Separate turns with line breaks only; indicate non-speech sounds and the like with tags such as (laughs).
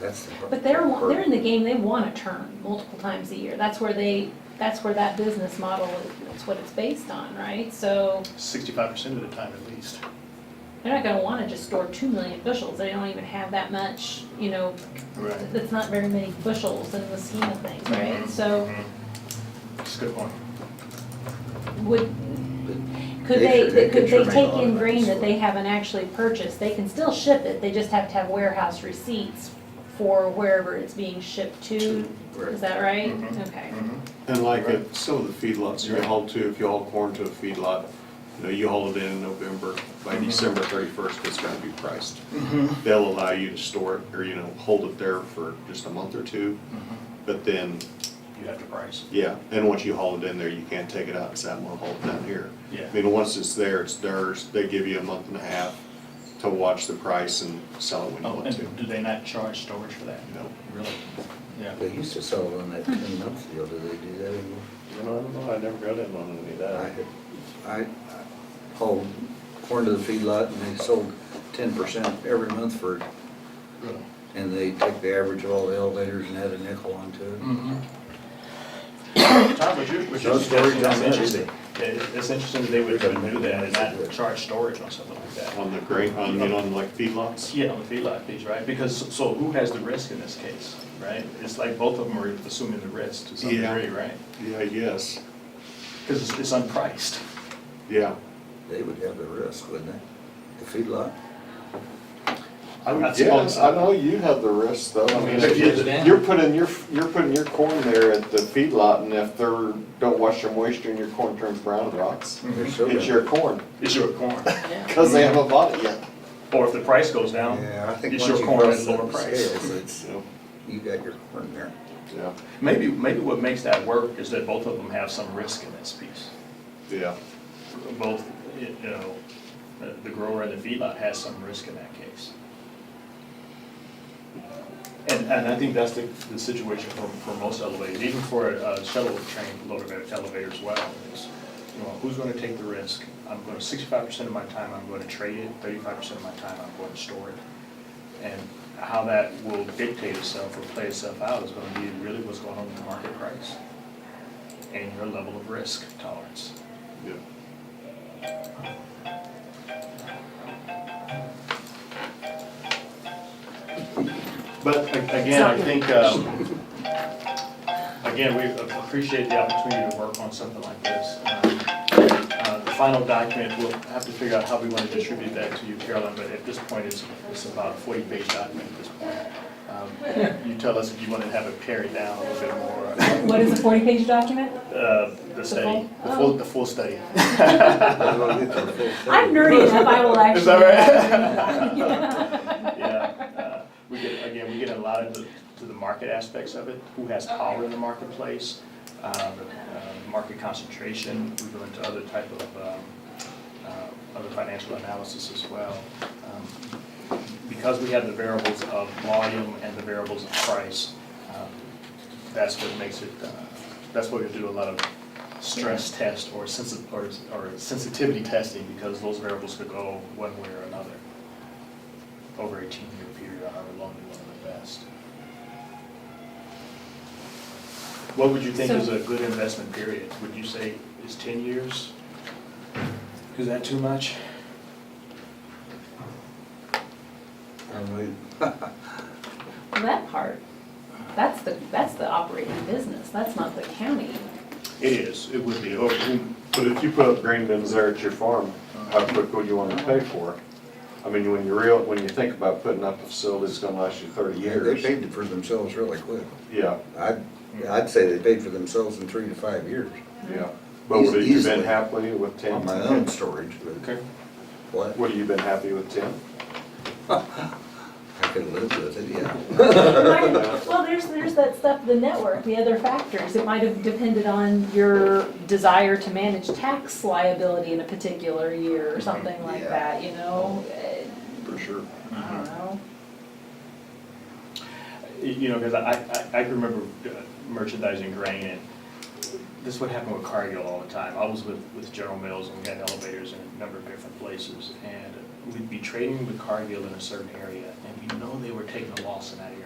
that's. the-
But they're, wa- they're in the game, they want to turn multiple times a year. That's where they, that's where that business model, is- that's what it's based on, right? So
Sixty-five percent of the time at least.
they're not going to want to just store two million bushels. They don't even have that much, you know,
Right.
that's not very many bushels in the scheme of things, right? So
That's Mm-hmm. a good point.
would, could
They
they,
should- they
could
could
they
terminate
take
all
in
of
grain
those.
that they haven't actually purchased? They can still ship it, they just have to have warehouse receipts for wherever it's being shipped to,
Right.
is that right?
Mhm.
Okay.
And like at some of the feedlots you haul to, if you haul corn to a feedlot, you know, you haul it in in November, by December thirty-first, it's gonna be priced. They'll allow you to store it, or, you know, hold it there for just a month or two, but then,
You have to price.
yeah, and once you haul it in there, you can't take it out and say, I'm gonna haul it down here.
Yeah.
I mean, once it's there, it's theirs, they give you a month and a half to watch the price and sell it when you
Oh,
want to.
and do they not charge storage for that?
No.
Really? Yeah.
They used to sell it on that ten month deal, do they do that anymore?
I don't know, I never got in on any of
I,
Uh,
I I hauled corn to the feedlot and they sold ten percent every month for it.
Really?
And they take the average of all the elevators and add a nickel onto it.
Mm. Mm-hmm. Tom, would you, would you?
No storage on
that's
that, is
interesting. Yeah, It's interesting that they would even do that and not charge storage on something like that.
On the grain, on, you know, on like feedlots?
Yeah, on the feedlot fees, right? Because, so who has the risk in this case, right? It's like both of them are assuming the risk to some
Yeah.
degree, right?
Yeah, yes,
Because it's, it's unpriced.
yeah.
They would have the risk, wouldn't they? The feedlot?
I would
Yes,
suppose-
I know you have the risk though.
I mean,
If you-
it's
down.
You're putting your, you're putting your corn there at the feedlot and if they're, don't wash their moisture and your corn turns brown and rots,
They're so
it's
good.
your corn,
Mm-hmm. It's your corn.
cause they haven't bought it yet.
Or if the price goes down,
Yeah, I think
it's
once
your
you
corn at
cross
a lower
that
price. (laughs)
scales, it's,
So,
you got your corn there.
yeah,
Maybe, maybe what makes that work is that both of them have some risk in this piece.
yeah.
Both, you know, the- the grower and the feedlot has some risk in that case. And, and I think that's the, the situation for, for most elevators, even for a shuttle train loader elevator as well. is, You know, who's gonna take the risk? I'm going, to sixty-five percent of my time, I'm gonna trade it, thirty-five percent of my time, I'm going to store it. And how that will dictate itself or play itself out is gonna be really what's going on with the market price and your level of risk tolerance.
Yeah.
But a- again, I think, um, again, we appreciate the opportunity to work on something like this. Um, uh, The final document, we'll have to figure out how we want to distribute that to you, Carolyn, but at this point, it's, it's about a forty-page document at this point. Um, You tell us if you want to have it pared down a little bit more,
What is a forty-page document?
uh, the
full?
study, the full, the full study. (laughs)
I'm nerdy enough, I will actually.
Is that
(laughs)
right? Yeah, uh, we get, again, we get a lot of the, to the market aspects of it, who has power in the marketplace, um, uh, market concentration, we go into other type of, um, uh, other financial analysis as well. Um, Because we have the variables of volume and the variables of price, um, that's what makes it, uh, that's why we do a lot of stress test or sensi- or, or sensitivity testing, because those variables could go one way or another over a ten-year period, or however long you want to invest. What would you think is
So-
a good investment period? Would you say is ten years? Is that too much?
Well, That part, that's the, that's the operating business, that's not the county.
(laughs) It is, it would be. Or-
But if you put up grain bins there at your farm, how quick would you wanna pay for it? I mean, when you real, when you think about putting up a facility that's gonna last you thirty
Yeah, they
years,
paid for themselves really quick.
yeah.
I'd, I'd say they paid for themselves in three to five years.
Yeah, but what have you
Easily.
been happy with ten?
On my own storage, but what,
What have you been happy with ten?
I could live with it, yeah.
Well, there's, there's that stuff, the network, the other factors, it might have depended on your desire to manage tax liability in a particular year or something like
Yeah.
that, you know? Eh,
For sure.
Mm-hmm.
I don't know.
You know, because I, I, I can remember uh, merchandising grain and this would happen with Cargill all the time. I was with, with General Mills and we had elevators in a number of different places. And we'd be trading with Cargill in a certain area and we know they were taking a loss in that area.